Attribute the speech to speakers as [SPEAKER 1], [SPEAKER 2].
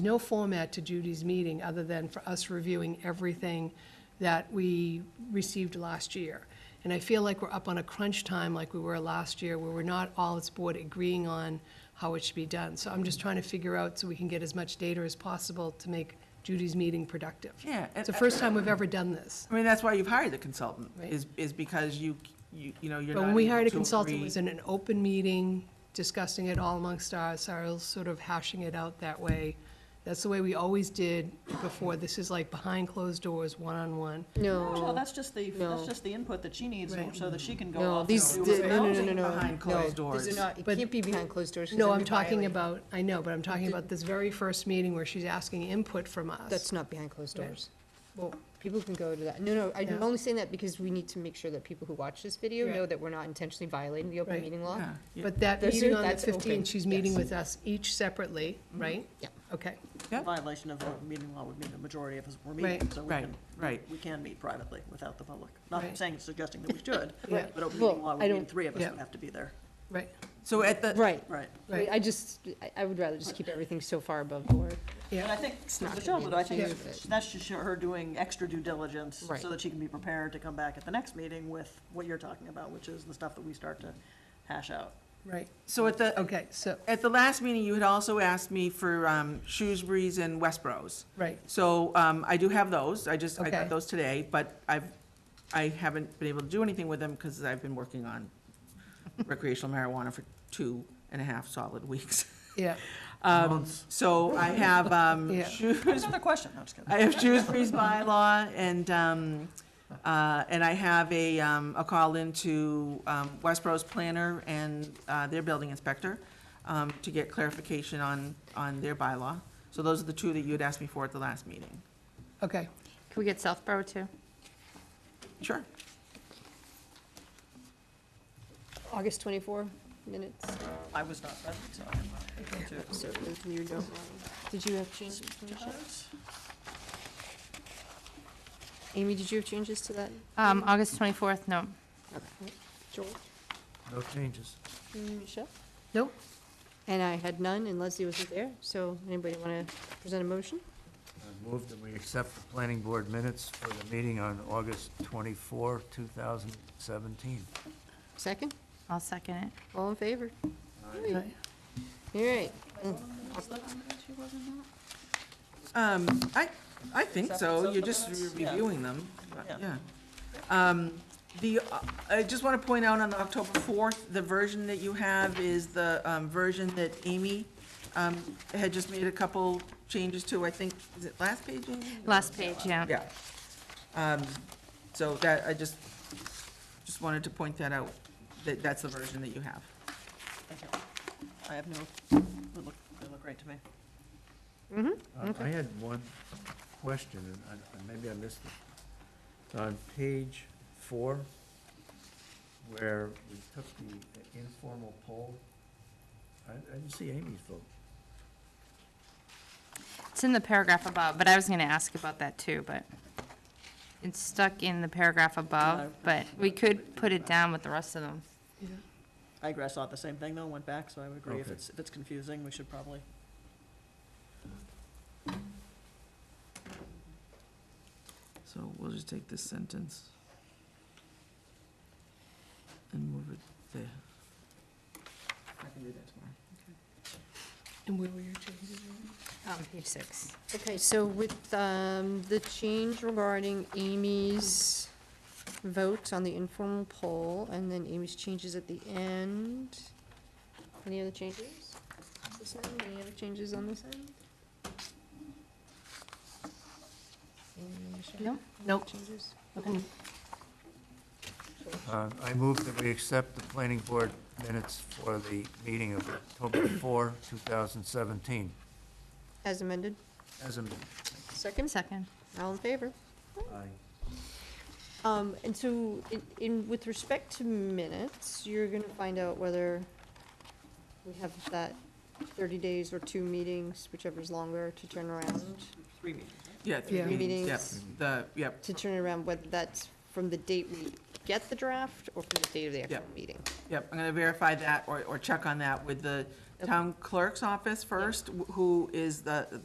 [SPEAKER 1] no format to Judy's meeting other than for us reviewing everything that we received last year. And I feel like we're up on a crunch time like we were last year, where we're not all as board agreeing on how it should be done. So I'm just trying to figure out so we can get as much data as possible to make Judy's meeting productive.
[SPEAKER 2] Yeah,
[SPEAKER 1] It's the
[SPEAKER 2] and-
[SPEAKER 1] first time we've ever done this.
[SPEAKER 2] I mean, that's why you've hired the consultant,
[SPEAKER 1] Right.
[SPEAKER 2] is, is because you, you, you know, you're
[SPEAKER 1] But
[SPEAKER 2] not
[SPEAKER 1] when we hired a
[SPEAKER 2] able to
[SPEAKER 1] consultant, it
[SPEAKER 2] agree-
[SPEAKER 1] was in an open meeting, discussing it all amongst us, I was sort of hashing it out that way. That's the way we always did before. This is like behind closed doors, one-on-one.
[SPEAKER 3] No,
[SPEAKER 2] Oh,
[SPEAKER 4] No, that's just the, that's
[SPEAKER 3] No.
[SPEAKER 4] just the input that she needs
[SPEAKER 1] Right.
[SPEAKER 4] so that she can go off.
[SPEAKER 3] no,
[SPEAKER 4] and
[SPEAKER 3] these,
[SPEAKER 4] do
[SPEAKER 3] no,
[SPEAKER 4] what
[SPEAKER 3] no,
[SPEAKER 4] those-
[SPEAKER 3] no, no, no.
[SPEAKER 2] Behind closed
[SPEAKER 3] no, These
[SPEAKER 2] doors.
[SPEAKER 3] are not, it
[SPEAKER 1] But-
[SPEAKER 3] can't be behind closed doors. 'cause
[SPEAKER 1] No,
[SPEAKER 3] that'd
[SPEAKER 1] I'm
[SPEAKER 3] be
[SPEAKER 1] talking
[SPEAKER 3] violating.
[SPEAKER 1] about, I know, but I'm talking about this very first meeting where she's asking input from us.
[SPEAKER 3] That's not behind closed
[SPEAKER 1] Right.
[SPEAKER 3] doors. Well, people can go to that. No, no,
[SPEAKER 1] Yeah.
[SPEAKER 3] I'm only saying that because we need to make sure that people who watch this video
[SPEAKER 1] Right.
[SPEAKER 3] know that we're not intentionally violating the open
[SPEAKER 1] Right.
[SPEAKER 3] meeting law.
[SPEAKER 2] Yeah, yeah.
[SPEAKER 1] But that
[SPEAKER 3] Those
[SPEAKER 1] meeting
[SPEAKER 3] are-
[SPEAKER 1] on the
[SPEAKER 3] that's open,
[SPEAKER 1] fifteenth, she's meeting
[SPEAKER 3] yes. Mm-hmm.
[SPEAKER 1] with us each separately, right?
[SPEAKER 3] Yeah.
[SPEAKER 1] Okay,
[SPEAKER 2] Yep.
[SPEAKER 4] Violation of the meeting law would mean the majority of us were meeting,
[SPEAKER 1] Right.
[SPEAKER 4] so we
[SPEAKER 2] Right,
[SPEAKER 4] can,
[SPEAKER 2] right.
[SPEAKER 4] we can meet privately without the public. Not
[SPEAKER 1] Right.
[SPEAKER 4] saying, suggesting that we should,
[SPEAKER 1] Yeah.
[SPEAKER 4] but open
[SPEAKER 3] Well,
[SPEAKER 4] meeting law
[SPEAKER 3] I
[SPEAKER 4] would mean
[SPEAKER 3] don't-
[SPEAKER 4] three of us
[SPEAKER 1] Yeah.
[SPEAKER 4] would have to be there.
[SPEAKER 1] right,
[SPEAKER 2] So at the,
[SPEAKER 3] Right.
[SPEAKER 4] Right.
[SPEAKER 1] right,
[SPEAKER 3] I just, I- I would rather just keep everything so far above board.
[SPEAKER 4] And I
[SPEAKER 1] yeah,
[SPEAKER 4] think,
[SPEAKER 3] not
[SPEAKER 4] Michelle,
[SPEAKER 3] gonna
[SPEAKER 4] but
[SPEAKER 3] be
[SPEAKER 4] I think
[SPEAKER 3] able to-
[SPEAKER 4] that's just her doing extra due diligence
[SPEAKER 3] Right.
[SPEAKER 4] so that she can be prepared to come back at the next meeting with what you're talking about, which is the stuff that we start to hash out.
[SPEAKER 1] right.
[SPEAKER 2] so at the,
[SPEAKER 1] Okay, so,
[SPEAKER 2] at the last meeting, you had also asked me for um, Shrewsbury's and Westboro's.
[SPEAKER 1] right,
[SPEAKER 2] So um, I do have those, I just, I
[SPEAKER 1] Okay.
[SPEAKER 2] got those today, but I've, I haven't been able to do anything with them because I've been working on recreational marijuana for two and a half solid weeks.
[SPEAKER 1] yeah,
[SPEAKER 2] Um, So I have um,
[SPEAKER 1] Yeah.
[SPEAKER 2] Shrews-
[SPEAKER 4] Another question, no, just kidding.
[SPEAKER 2] I have Shrewsbury's bylaw, and, um, uh, and I have a, um, a call into, um, Westboro's planner and, uh, their building inspector, um, to get clarification on, on their bylaw. So those are the two that you had asked me for at the last meeting.
[SPEAKER 1] okay.
[SPEAKER 5] Can we get Southborough too?
[SPEAKER 2] Sure.
[SPEAKER 3] August 24 minutes.
[SPEAKER 4] I was not present, so I'm not able to.
[SPEAKER 3] So moved and you don't. Did you have changes?
[SPEAKER 2] Uh,
[SPEAKER 3] Amy, did you have changes to that?
[SPEAKER 5] Um, August 24th, no.
[SPEAKER 3] Okay. Joel?
[SPEAKER 6] No changes.
[SPEAKER 3] Michelle?
[SPEAKER 1] Nope,
[SPEAKER 3] And I had none, and Leslie wasn't there, so anybody want to present a motion?
[SPEAKER 6] I move that we accept the planning board minutes for the meeting on August 24, 2017.
[SPEAKER 3] Second?
[SPEAKER 5] I'll second it.
[SPEAKER 3] All in favor? All
[SPEAKER 1] Aye.
[SPEAKER 3] right.
[SPEAKER 2] Um, I, I think
[SPEAKER 4] Accept-
[SPEAKER 2] so,
[SPEAKER 4] accept
[SPEAKER 2] you're
[SPEAKER 4] the
[SPEAKER 2] just
[SPEAKER 4] minutes? Yeah.
[SPEAKER 2] reviewing them, but,
[SPEAKER 4] Yeah.
[SPEAKER 2] yeah. Um, the, uh, I just want to point out on the October fourth, the version that you have is the, um, version that Amy, um, had just made a couple changes to, I think, is it last page? Amy?
[SPEAKER 5] Last page, yeah.
[SPEAKER 2] Yeah. Um, so that, I just, just wanted to point that out, that that's the version that you have.
[SPEAKER 4] Thank you. I have no, they look, they look great to me.
[SPEAKER 6] Uh, I had one question, and I- and maybe I missed it. On page four, where we took the informal poll, I I didn't see Amy's vote.
[SPEAKER 5] It's in the paragraph above, but I was going to ask about that too, but it's stuck in the paragraph above, but we could put it down with the rest of them.
[SPEAKER 4] I agree, I saw the same thing though, went back, so I would agree if
[SPEAKER 6] Okay.
[SPEAKER 4] it's, if it's confusing, we should probably.
[SPEAKER 2] So we'll just take this sentence and move it there. I can do that tomorrow.
[SPEAKER 1] and where were your changes? Amy?
[SPEAKER 5] On Um, page six.
[SPEAKER 3] Okay, so with um, the change regarding Amy's vote on the informal poll, and then Amy's changes at the end, any other changes? This end, any other changes on this end? Amy, Michelle?
[SPEAKER 5] No?
[SPEAKER 1] Nope.
[SPEAKER 3] Changes?
[SPEAKER 6] Uh, I move that we accept the planning board minutes for the meeting of October 4, 2017.
[SPEAKER 3] As amended,
[SPEAKER 6] As a,
[SPEAKER 3] second,
[SPEAKER 5] Second.
[SPEAKER 3] all in favor?
[SPEAKER 6] I
[SPEAKER 3] Um, and so, in, in, with respect to minutes, you're gonna find out whether we have that thirty days or two meetings, whichever's longer, to turn around,
[SPEAKER 4] Three meetings.
[SPEAKER 2] Yeah, three
[SPEAKER 1] Yeah.
[SPEAKER 2] meetings, yep,
[SPEAKER 3] Meetings.
[SPEAKER 2] the, yep,
[SPEAKER 3] to turn around whether that's from the date we get the draft or from the date of the actual
[SPEAKER 2] Yep.
[SPEAKER 3] meeting.
[SPEAKER 2] yep, I'm gonna verify that or, or check on that with the town clerk's office first, wh- who is the,